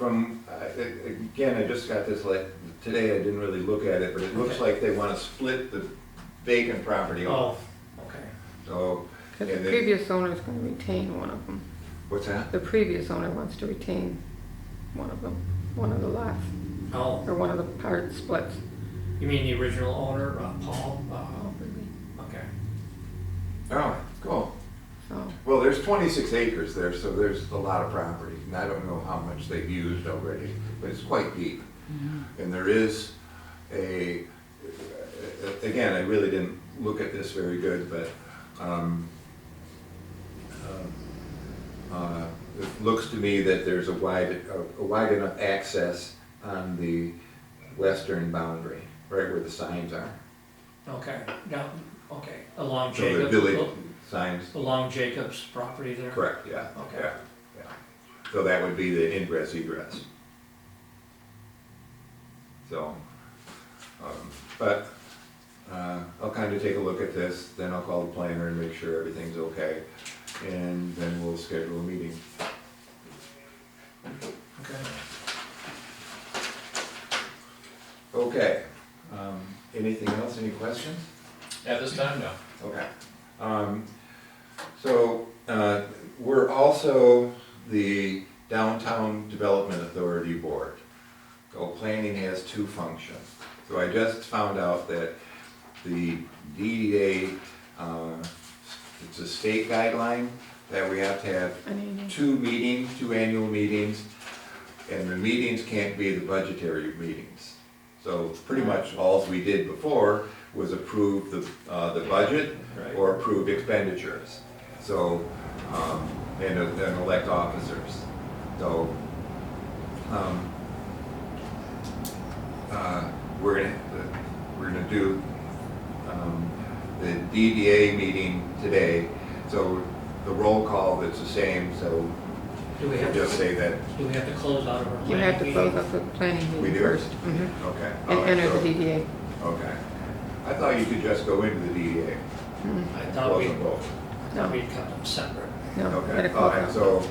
From, I- I- again, I just got this like, today I didn't really look at it, but it looks Okay. like they want to split the vacant property off. Oh, okay. So, Because And the then- previous owner's gonna retain one of them. what's that? The previous owner wants to retain one of them, one of the lots, Oh, or one of the part splits. you mean the original owner, uh, Paul? Uh, probably. okay. Oh, cool. So, Well, there's 26 acres there, so there's a lot of property, and I don't know how much they've used already, but it's quite deep. And there is a, again, I really didn't look at this very good, but um, um, uh, it looks to me that there's a wide, a wide enough access on the western boundary, right where the signs are. Okay, down, okay, along So the Jacob, village signs, along Jacob's property there? correct, yeah. Okay. yeah, yeah. So that would be the ingress egress. So, um, but uh, I'll kind of take a look at this, then I'll call the planner and make sure everything's okay, and then we'll schedule a meeting. Okay. Okay. Um, Anything else, any questions? At this time, no. Okay. Um, So, uh, we're also the Downtown Development Authority Board. So planning has two functions. So I just found out that the DDA, uh, it's a state guideline that we have to have I mean, two meetings, two annual meetings, and the meetings can't be the budgetary meetings. So pretty much all we did before was approve the, uh, the budget Right. or approve expenditures. So, um, and, and elect officers. So, um, uh, we're gonna, we're gonna do, um, the DDA meeting today. So the roll call, it's the same, so Do we have just to, say that, do we have to close out of our planning you have to close meeting? up the planning We meeting do? first. mhm, okay. all And right, enter so- the DDA. Okay. I thought you could just go into the DDA. Mhm, I thought we, Wasn't both. thought we cut them separate. No, gotta Okay, all close right, out. so,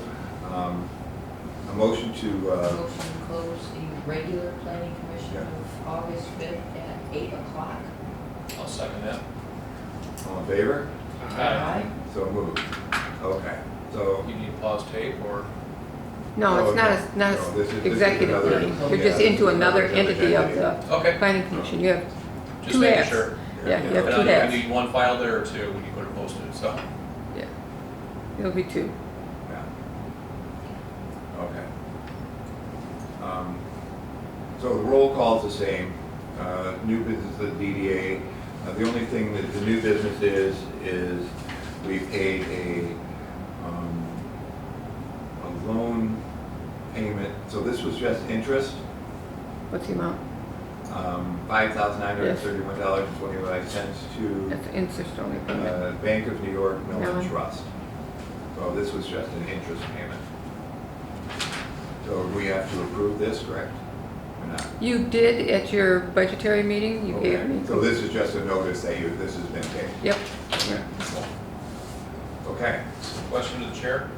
um, a motion to, uh, Motion to close the regular planning commission Yeah. of August fifth at eight o'clock. I'll second that. all in favor? Aye. So moved. Okay, so, You need to pause tape or? No, Oh, it's not, okay. a- not No, this is- this an is executive another- meeting. okay, You're just this is into another another entity of agenda. the Okay, planning commission. You have, just Two making halves. sure. yeah, you have And two I think halves. you need one file there or two when you go to post it, so. Yeah. It'll be two. yeah. Okay. Um, So the roll call's the same, uh, new business, the DDA, Uh, the only thing that the new business is, is we paid a, um, a loan payment, so this was just interest, What's the amount? um, five thousand nine hundred thirty-one dollars and twenty-five cents to, That's the interest only payment. uh, Bank of New York Mellon Mellon. Trust. So this was just an interest payment. So we have to approve this, correct? Or not? You did at your budgetary meeting, you gave Okay. me. So this is just a notice that you, this has been paid. Yep. Okay, Question to the chair?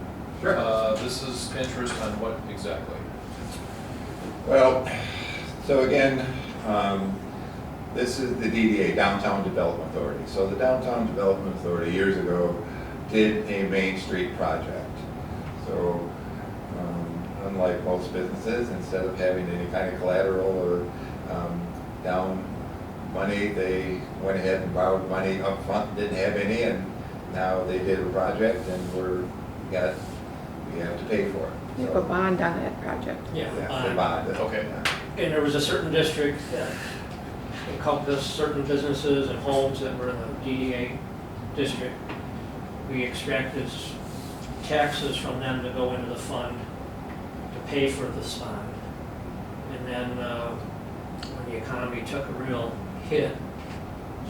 sure. Uh, This is interest on what exactly? Well, so again, um, this is the DDA, Downtown Development Authority. So the Downtown Development Authority years ago did a Main Street project. So um, unlike most businesses, instead of having any kind of collateral or um, down money, they went ahead and borrowed money up front. didn't have any, and now they did a project and we're, got, we have to pay for it. You have a bond on that project. Yeah. Yeah, aye. they bond it. Okay. And there was a certain district that encompassed certain businesses and homes that were in the DDA district. We extracted s- taxes from them to go into the fund to pay for this bond. And then, uh, when the economy took a real hit,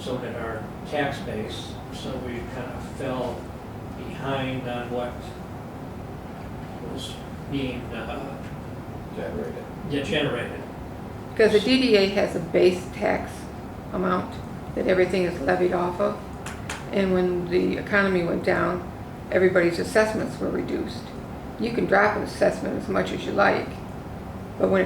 so did our tax base. So we kind of fell behind on what was being, uh, Generated. generated. Because the DDA has a base tax amount that everything is levied off of. And when the economy went down, everybody's assessments were reduced. You can drop an assessment as much as you like, But when it